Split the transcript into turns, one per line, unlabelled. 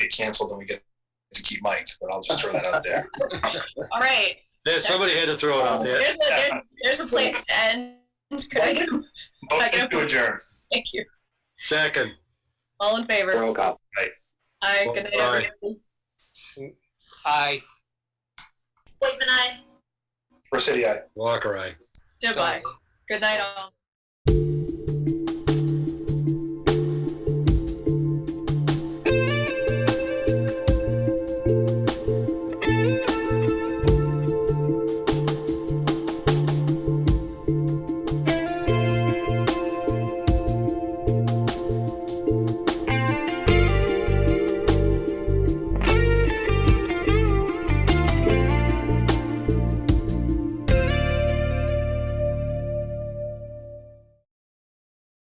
get canceled, then we get to keep Mike. But I'll just throw that out there.
All right.
There, somebody had to throw it out there.
There's a, there- there's a place to end. Could I get a,
Motion to adjourn.
thank you.
Second.
All in favor?
Roll call.
Aye. Good night,
Aye.
everybody.
Aye.
Sleep and I.
Residency.
Walker, aye.
Goodbye. Good night, all.